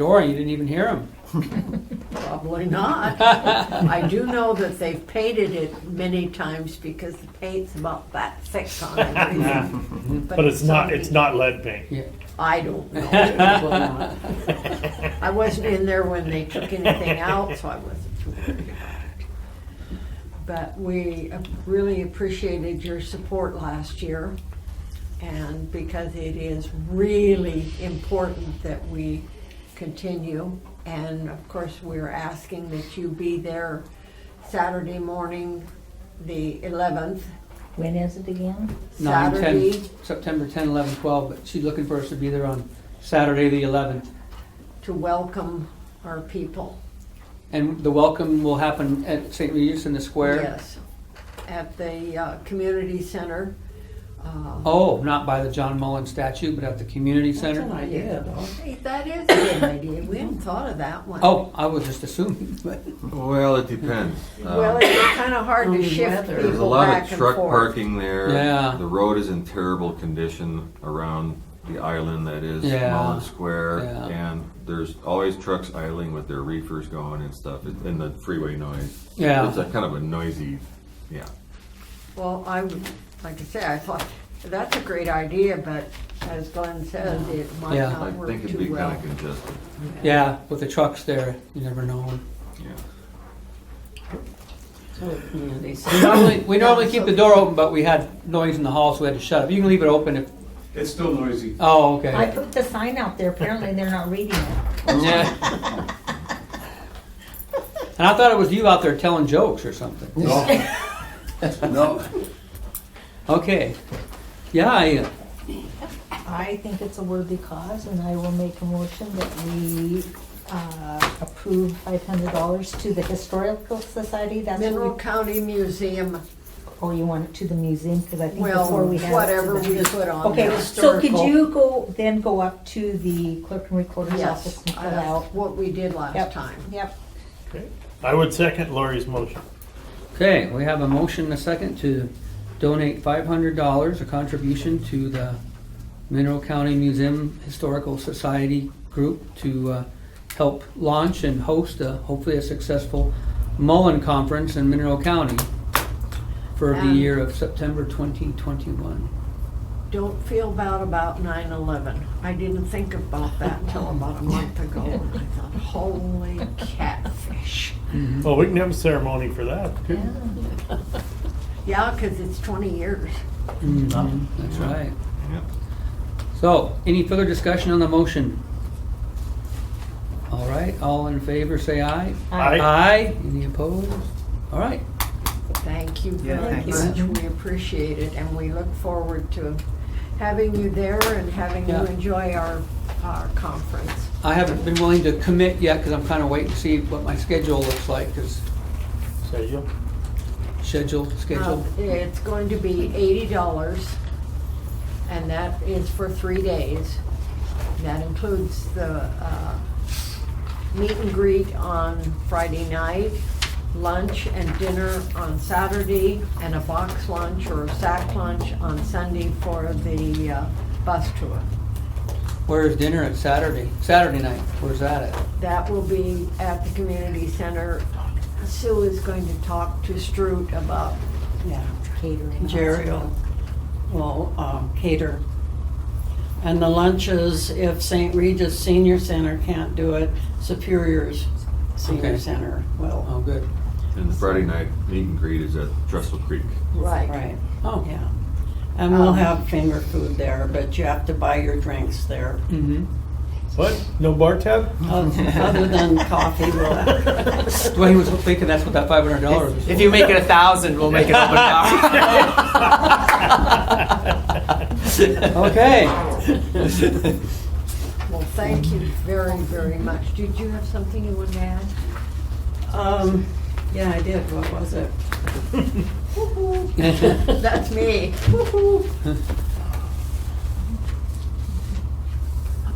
door and you didn't even hear him. Probably not. I do know that they've painted it many times because the paint's about that thick on everything. But it's not, it's not lead paint. Yeah. I don't know. It will not. I wasn't in there when they took anything out, so I wasn't too worried about it. But we really appreciated your support last year. And because it is really important that we continue. And of course, we're asking that you be there Saturday morning, the 11th, When is it again? Nine, ten, Saturday September 10, 11, 12, but she's looking for us to be there on Saturday, the 11th. to welcome our people. And the welcome will happen at St. Regis in the square? Yes, at the uh, community center. Uh, Oh, not by the John Mullen statue, but at the community center? idea, hey, That is a good idea, we hadn't thought of that one. Oh, I was just assuming, but Well, it depends. Well, Um, it's kind of hard to shift people back and forth. There's a lot of truck parking there. Yeah. The road is in terrible condition around the island that is Yeah. Mullen Square. Yeah. And there's always trucks idling with their reefers going and stuff, and the freeway noise. Yeah. It's a kind of a noisy, yeah. Well, I, would- like I say, I thought, that's a great idea, but as Glenn says, it might Yeah. I not work think it'd be too kind of well. congested, yeah, with the trucks there, you never know. yeah. We normally, we normally keep the door open, but we had noise in the hall, so we had to shut it. You can leave it open if, It's still noisy. oh, I okay. put the sign out there, apparently they're not reading it. Yeah. And I thought it was you out there telling jokes or something. No. No. Okay. Yeah, I, I think it's a worthy cause, and I will make a motion that we uh, approve five hundred dollars to the Historical Society, that's Mineral what we, County Museum, oh, you want it to the museum, because I think before well, we had. it to whatever the- we put on the Okay, so could historical. you go, then go up to the clerk and recorder's office Yes, and fill uh, out? what we did last Yep. time. Yep, I would second Lori's motion. okay, we have a motion and a second to donate five hundred dollars, a contribution to the Mineral County Museum Historical Society Group to, uh, help launch and host a, hopefully a successful Mullen Conference in Mineral County for the And- year of September twenty twenty-one. Don't feel bad about 9/11. I didn't think about that until about a month ago. and I thought, holy catfish. Well, we can have a ceremony for that. Yeah, 'cause it's 20 years. Mm-hmm. Oh, That's right. Yeah. So, any further discussion on the motion? All right, all in favor, say aye. Aye. Aye, any opposed? All right, Thank you Yeah, very much. thanks. We appreciate it and we look forward to having you there and having you Yeah. enjoy our, our conference. I haven't been willing to commit yet, because I'm kind of waiting to see what my schedule looks like, because So you, schedule, schedule. Um, Oh. It's going to be eighty dollars, and that is for three days. That includes the uh, meet and greet on Friday night, lunch and dinner on Saturday, and a box lunch or a sack lunch on Sunday for the uh, bus tour. Where's dinner at Saturday? Saturday night, where's that at? That will be at the community center. Sue is going to talk to Stroot about Yeah, catering. Jerry will um, cater. And the lunches, if St. Regis Senior Center can't do it, Superior's Okay. Senior Center will. Oh, good. And the Friday night meet and greet is at Trestle Creek. right. Right, Oh, yeah. And we'll Um, have finger food there, but you have to buy your drinks there. mm-hmm. what? No bar tab? Other than coffee, we'll, Dwayne was thinking that's what that five hundred dollars was. If you make it a thousand, we'll make it open for. bar. Okay, Well, thank you very, very much. Did you have something you wanted to add? um, yeah, I did, what was it? That's me.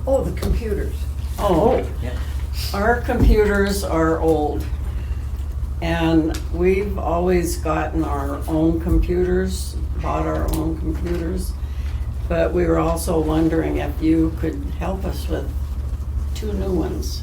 Oh, the computers. Oh, our computers are old. And we've always gotten our own computers, bought our own computers. But we were also wondering if you could help us with two new ones.